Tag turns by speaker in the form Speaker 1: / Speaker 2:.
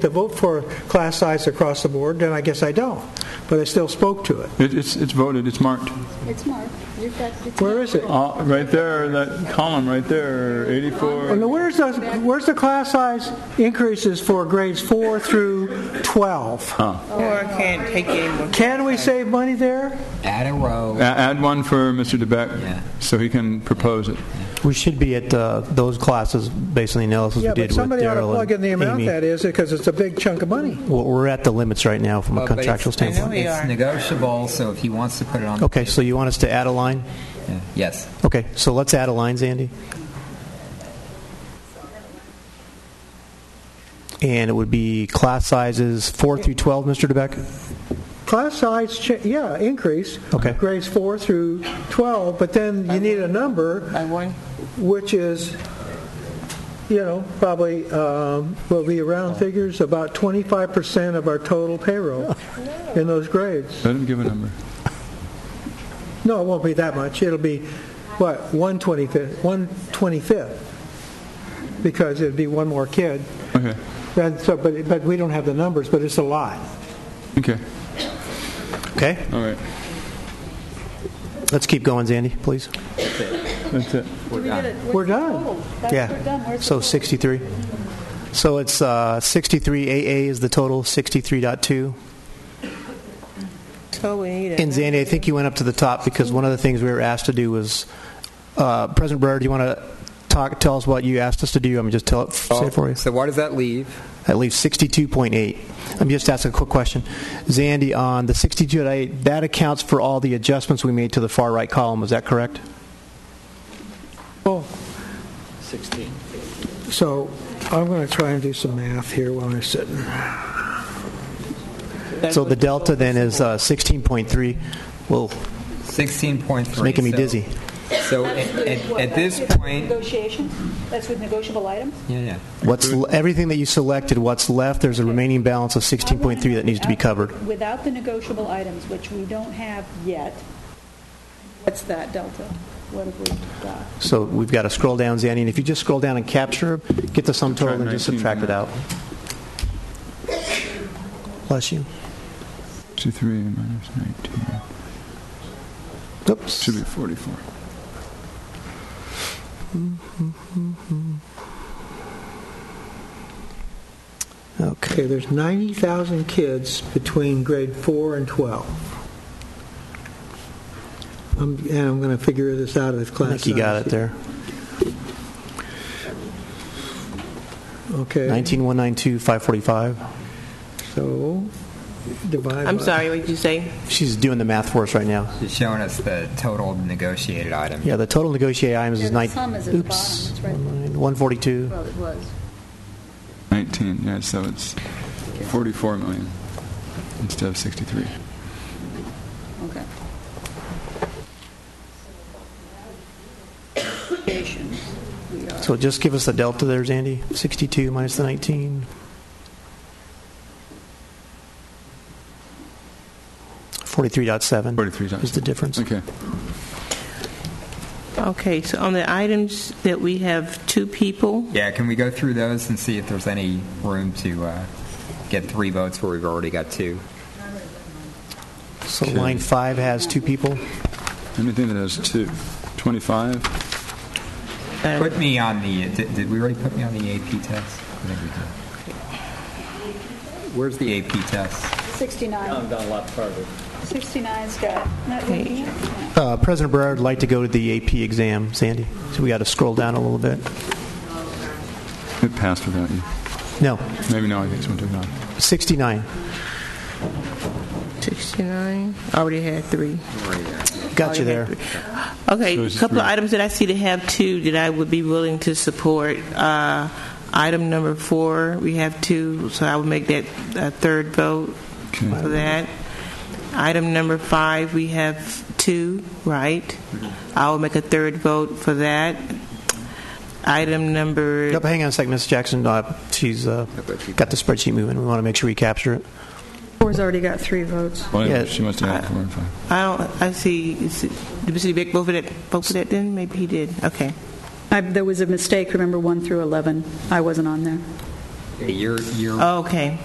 Speaker 1: to vote for class size across the board, then I guess I don't. But I still spoke to it.
Speaker 2: It- It's, it's voted, it's marked.
Speaker 3: It's marked. You've got, it's
Speaker 1: Where
Speaker 3: marked.
Speaker 1: is it?
Speaker 2: Uh, Right there, that column right there,
Speaker 1: And
Speaker 2: 84.
Speaker 1: where's the, where's the class size increases for grades four through 12?
Speaker 4: Or I can't take anymore.
Speaker 1: Can we save money there?
Speaker 5: Add a row.
Speaker 2: A- Add one for Mr.
Speaker 5: Yeah.
Speaker 2: DeBeck, so he can propose it.
Speaker 6: We should be at uh, those classes based on the analysis
Speaker 1: Yeah,
Speaker 6: we
Speaker 1: but
Speaker 6: did with
Speaker 1: somebody ought to
Speaker 6: Daryl
Speaker 1: plug in
Speaker 6: and
Speaker 1: the amount
Speaker 6: Amy.
Speaker 1: that is, because it's a big chunk of money.
Speaker 6: Well, we're at the limits right now from a
Speaker 5: Well, but
Speaker 6: contractual
Speaker 5: it's-
Speaker 6: standpoint.
Speaker 4: I know we
Speaker 5: It's
Speaker 4: are.
Speaker 5: negotiable, so if he wants to put it on. the
Speaker 6: Okay, so you want us to add a line?
Speaker 5: table, yeah. Yes.
Speaker 6: Okay, so let's add a line, Zandy. And it would be class sizes 4 through 12, Mr. DeBeck?
Speaker 1: Class size, cha- yeah, increase.
Speaker 6: Okay.
Speaker 1: Grades four through 12, but then you need a number
Speaker 4: By one,
Speaker 1: which is, you know, probably, um, will be around figures, about 25% of our total payroll in those grades.
Speaker 2: Let him give a number.
Speaker 1: No, it won't be that much. It'll be, what, 125th, 125th, because it'd be one more kid.
Speaker 2: Okay,
Speaker 1: And so, but, but we don't have the numbers, but it's a lot.
Speaker 2: okay,
Speaker 6: Okay,
Speaker 2: all right,
Speaker 6: let's keep going, Zandy, please.
Speaker 2: that's it.
Speaker 3: We did it.
Speaker 1: We're done.
Speaker 3: Oh, that's- We're done.
Speaker 6: Yeah,
Speaker 3: Where's the
Speaker 6: so
Speaker 3: vote?
Speaker 6: 63. So it's uh, 63AA is the total, 63.2.
Speaker 4: so we need
Speaker 6: And
Speaker 4: it.
Speaker 6: Zandy, I think you went up to the top because one of the things we were asked to do was, uh, President Brewer, do you want to talk? Tell us what you asked us to do. I'm just tell it, say it for you.
Speaker 5: So why does that leave?
Speaker 6: At least 62.8. I'm just asking a quick question, Zandy. On the 62.8, that accounts for all the adjustments we made to the far right column. Is that correct?
Speaker 1: So I'm going to try and do some math here while I'm sitting.
Speaker 6: So the delta then is uh, 16.3. Well,
Speaker 5: Sixteen point three.
Speaker 6: it's making me dizzy.
Speaker 5: So at,
Speaker 3: Is
Speaker 5: at,
Speaker 3: what?
Speaker 5: at this
Speaker 3: That's with
Speaker 5: point,
Speaker 3: Negotiations? That's with negotiable items?
Speaker 5: yeah, yeah.
Speaker 6: What's l- everything that you selected? What's left? There's a remaining balance of 16.3 that needs to be covered.
Speaker 3: Without the negotiable items, which we don't have yet, what's that delta? What have we got?
Speaker 6: So we've got to scroll down, Zanny, and if you just scroll down and capture, get the sum total and just
Speaker 2: Subtract
Speaker 6: subtract it out. Bless you.
Speaker 2: 63 minus 19,
Speaker 6: Oops.
Speaker 2: should be 44.
Speaker 6: Okay.
Speaker 1: Okay, there's 90,000 kids between grade 4 and 12. I'm- And I'm going to figure this out as
Speaker 6: I
Speaker 1: class
Speaker 6: think you got it
Speaker 1: size.
Speaker 6: there.
Speaker 1: Okay.
Speaker 6: 19192,545.
Speaker 1: So divide
Speaker 4: I'm
Speaker 1: by-
Speaker 4: sorry, what did you say?
Speaker 6: She's doing the math for us right now.
Speaker 5: It's showing us the total negotiated items.
Speaker 6: Yeah, the total negotiated items
Speaker 3: Yeah,
Speaker 6: is
Speaker 3: the
Speaker 6: 9.
Speaker 3: sum is at the
Speaker 6: Oops.
Speaker 3: bottom,
Speaker 6: 142.
Speaker 3: Well, it was.
Speaker 2: 19, yeah, so it's 44 million instead of 63.
Speaker 3: Okay. Negotiations, we are.
Speaker 6: So just give us the delta there, Zandy. 62 minus the 19. 43.7
Speaker 2: 43 times.
Speaker 6: is the difference.
Speaker 2: Okay,
Speaker 4: Okay, so on the items that we have two people,
Speaker 5: Yeah, can we go through those and see if there's any room to uh, get three votes where we've already got two?
Speaker 6: So line five has two people.
Speaker 2: anything that has two, 25,
Speaker 4: uh,
Speaker 5: Put me on the. Did, did we already put me on the AP test? I think we did. Where's the AP test?
Speaker 3: 69.
Speaker 7: down a lot farther.
Speaker 3: 69's got, not what we have.
Speaker 6: Uh, President Barrard would like to go to the AP exam, Sandy. So we got to scroll down a little bit.
Speaker 2: it passed without you.
Speaker 6: No,
Speaker 2: Maybe now I think someone took it off.
Speaker 6: 69.
Speaker 4: 69, already had three.
Speaker 6: Got
Speaker 4: Already
Speaker 6: you
Speaker 4: had
Speaker 6: there.
Speaker 4: three. Okay,
Speaker 2: So
Speaker 4: a
Speaker 2: it's
Speaker 4: couple of
Speaker 2: three.
Speaker 4: items that I see that have two that I would be willing to support. Uh, Item number four, we have two, so I would make that a third vote
Speaker 2: Okay.
Speaker 4: for that. Item number five, we have two, right? I will make a third vote for that. Item number
Speaker 6: Yep, hang on a second, Ms. Jackson. Uh, she's uh, got the spreadsheet moving. We want to make sure we capture it.
Speaker 8: Four's already got three votes.
Speaker 2: Well,
Speaker 6: Yeah.
Speaker 2: She must have had four and five.
Speaker 4: I don't, I see, is it- did Mr. Beck vote for that, vote for that then? Maybe he did, okay.
Speaker 8: I- There was a mistake, remember, 1 through 11. I wasn't on there.
Speaker 5: a year, year
Speaker 4: Okay.